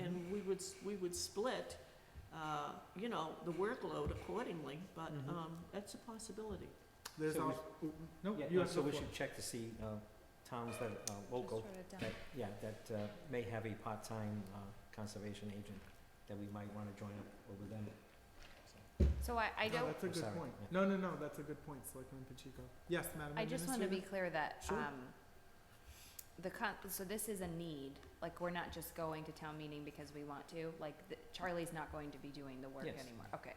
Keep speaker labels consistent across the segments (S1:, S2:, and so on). S1: Mm-hmm.
S2: would, s- we would split, uh, you know, the workload accordingly, but,
S1: Mm-hmm.
S3: Mhm.
S2: um, that's a possibility.
S1: There's
S3: So we-
S1: also, no,
S3: Oh, Yeah,
S1: you
S3: and
S1: have
S3: so
S1: the
S3: we
S1: floor.
S3: should check to see uh, towns that are
S2: Oh,
S3: local, that, yeah, that uh, may have a part-time uh, conservation agent that we might want to join up over them.
S4: So I, I
S3: Oh,
S1: No,
S4: don't,
S1: That's a
S3: I'm
S1: good
S3: sorry,
S1: point.
S3: yeah.
S1: Oh, No, no, no, that's a good point, Selectman Pacheco. Yes, Madam
S4: I just want to be clear that,
S1: Sure.
S4: um, the con, so this is a need, like, we're not just going to town meeting because we want to, like, the- Charlie's not going to be doing the work
S3: Yes.
S4: anymore, okay.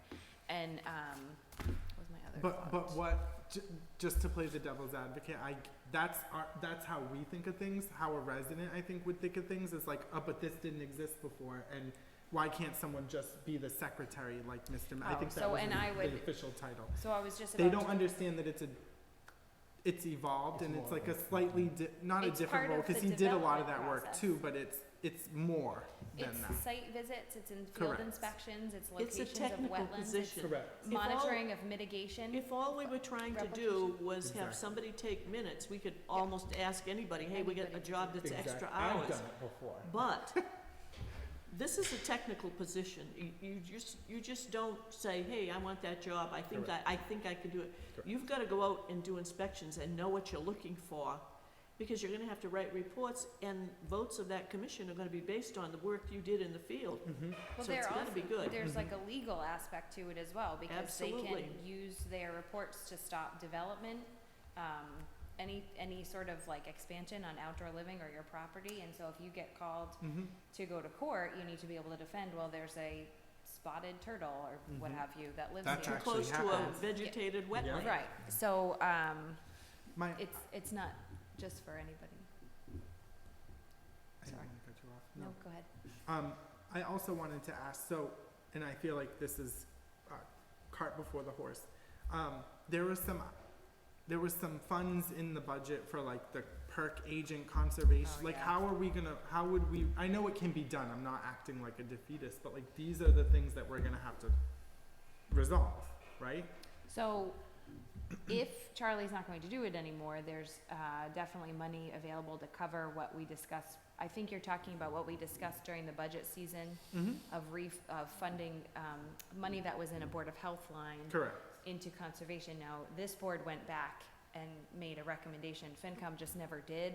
S4: And, um, what was my other
S1: But,
S4: thought?
S1: but what, ju- just to play the devil's advocate, I, that's our, that's how we think of things, how a resident, I think, would think of things, is like, oh, but this didn't exist before, and why can't someone just be the secretary like Mr. Ma, I
S4: Oh,
S1: think that
S4: so-
S1: was
S4: and
S1: the-
S4: I
S1: the
S4: would-
S1: official title.
S4: So I was just about
S1: They
S4: to.
S1: don't understand that it's a, it's evolved,
S3: It's
S1: and it's
S3: more
S1: like
S3: of
S1: a
S3: a-
S1: slightly di- not a
S4: It's
S1: different
S4: part
S1: role,
S4: of the
S1: cause he did a lot of
S4: development
S1: that work
S4: process.
S1: too, but it's, it's more than that.
S4: It's site visits, it's in field
S1: Correct.
S4: inspections,
S2: It's
S4: it's
S2: a
S4: locations of
S2: technical
S4: wetlands, it's
S2: position.
S1: Correct.
S2: If all-
S4: monitoring of mitigation.
S2: If all we were trying to do was
S1: Exactly.
S2: have somebody take minutes, we could almost ask anybody, hey, we got a
S4: Anybody.
S2: job that's extra
S1: I've
S2: hours.
S1: done it before.
S2: But this is a technical position. You, you just, you just don't say, hey, I want that job, I think I, I think I can do it.
S3: Correct.
S2: You've gotta go out and do inspections and know what you're looking for, because you're gonna have to write reports, and votes of that commission are gonna be based on the work you did in the field.
S1: Mhm.
S4: Well,
S2: So
S4: there
S2: it's
S4: are
S2: gotta be good. Mm-hmm.
S4: There's like a legal aspect to it as well, because they can
S2: Absolutely.
S4: use their reports to stop development, um, any, any sort of like expansion on outdoor living or your property, and so if you get called
S1: Mhm.
S4: to go to court, you need to be able to defend, well, there's a spotted turtle or
S2: Mm-hmm.
S4: what
S1: Mhm.
S4: have you that lives
S1: That's
S4: here.
S1: actually
S2: Close to a
S1: happens.
S2: vegetated
S3: Yeah.
S2: wetland.
S4: Right, so, um,
S1: My,
S4: it's, it's not just for anybody.
S1: I didn't
S4: Sorry.
S1: want to cut you off.
S4: No, go ahead.
S1: Um, I also wanted to ask, so, and I feel like this is uh, cart before the horse. Um, there was some, there was some funds in the budget for like the perk agent conservation.
S4: Oh,
S1: Like,
S4: yeah.
S1: how are we gonna, how would we, I know it can be done, I'm not acting like a defeatist, but like, these are the things that we're gonna have to resolve, right?
S4: So if Charlie's not going to do it anymore, there's uh, definitely money available to cover what we discussed. I think you're talking about what we discussed during the budget season
S1: Mm-hmm.
S4: of ref, of funding, um, money that was in a Board of Health line
S1: Correct.
S4: into conservation. Now, this board went back and made a recommendation. FinCom just never did.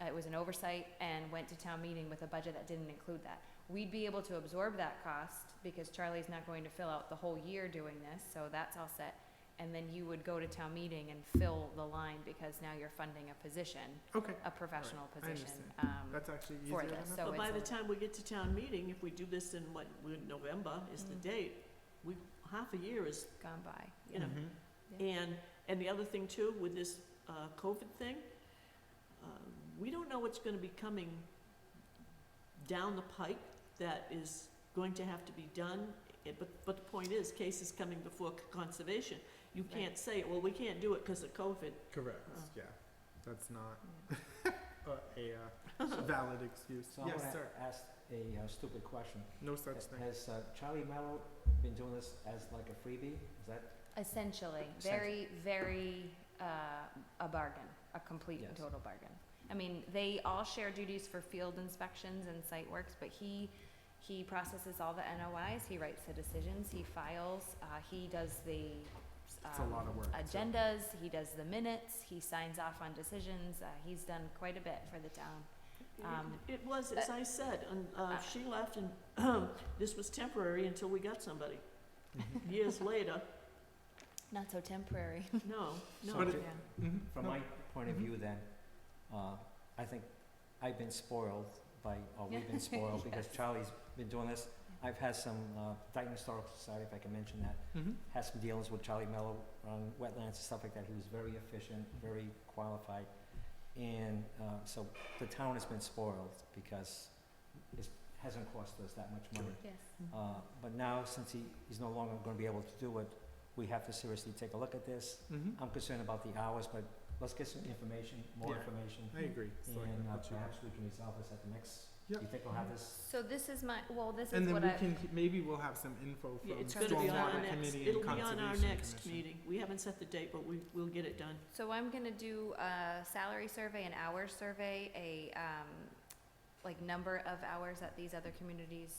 S4: Uh, It was an oversight and went to town meeting with a budget that didn't include that. We'd be able to absorb that cost because Charlie's not going to fill out the whole year doing this, so that's all set. And then you would go to town meeting and fill the line because now you're funding a position,
S1: Okay,
S4: a professional
S1: I
S4: position.
S1: understand.
S4: um,
S1: that's actually easier
S4: For
S1: than
S4: this,
S1: that.
S4: so
S2: But by the
S4: it's, a-
S2: time we get to town meeting, if we do this in what, we're- November is the
S4: Mm.
S2: date, we, half a year is,
S4: gone by.
S2: you know,
S1: Mhm.
S2: And, and the other thing too, with this uh, COVID thing, uh, we don't know what's gonna be coming down the pike that is going to have to be done. Eh, But, but the point is, cases coming before c- conservation. You
S4: Right.
S2: can't say, well, we can't do it because of COVID.
S1: Correct,
S2: Oh.
S1: yeah. That's not
S4: Yeah.
S1: a, a uh, valid excuse.
S3: So I
S1: Yes,
S3: want to
S1: sir.
S3: ask a uh, stupid question.
S1: No such
S3: Ha-
S1: thing.
S3: Has uh, Charlie Mello been doing this as like a freebie? Is that,
S4: Essentially, very, very, uh, a bargain, a complete and
S3: Yes.
S4: total bargain. I mean, they all share duties for field inspections and site works, but he, he processes all the NOIs, he writes the decisions, he files, uh, he does the,
S1: It's a
S4: um,
S1: lot of work. so-
S4: agendas, he does the minutes, he signs off on decisions, uh, he's done quite a bit for the town. Um,
S2: It was, as I said, and uh,
S4: uh,
S2: she left and this was temporary until we got somebody.
S3: Mm-hmm.
S2: Years later,
S4: Not so temporary,
S2: no, no.
S3: So
S1: But
S4: yeah.
S1: it- Mhm.
S3: from
S1: No,
S3: my point of
S1: Mhm.
S3: view then, uh, I think I've been spoiled by, or we've been spoiled because Charlie's been doing this. I've had some, uh, Dayton Historical Society, if I can mention that,
S1: mhm.
S3: had some dealings with Charlie Mello on wetlands and stuff like that. He was very efficient, very qualified. And uh, so the town has been spoiled because it hasn't cost us that much money.
S4: Yes.
S3: Uh, But now, since he, he's no longer going to be able to do it, we have to seriously take a look at this.
S1: Mhm.
S3: I'm concerned about the hours, but let's get some information, more
S1: Yeah.
S3: information.
S1: I agree. So I
S3: And
S1: can
S3: uh,
S1: put you-
S3: perhaps we can resolve this at the next, do
S1: Yep.
S3: you think we'll have this?
S4: So this is my, well, this
S1: And
S4: is
S1: then
S4: what
S1: we
S4: I,
S1: can, maybe we'll have some info
S2: Yeah,
S1: from
S2: It's gonna be on our
S1: Stormwater
S2: next,
S1: Committee
S2: it'll
S1: and
S2: be on our
S1: Conservation
S2: next
S1: Commission.
S2: meeting. We haven't set the date, but we, we'll get it done.
S4: So I'm gonna do a salary survey, an hours survey, a, um, like number of hours that these other communities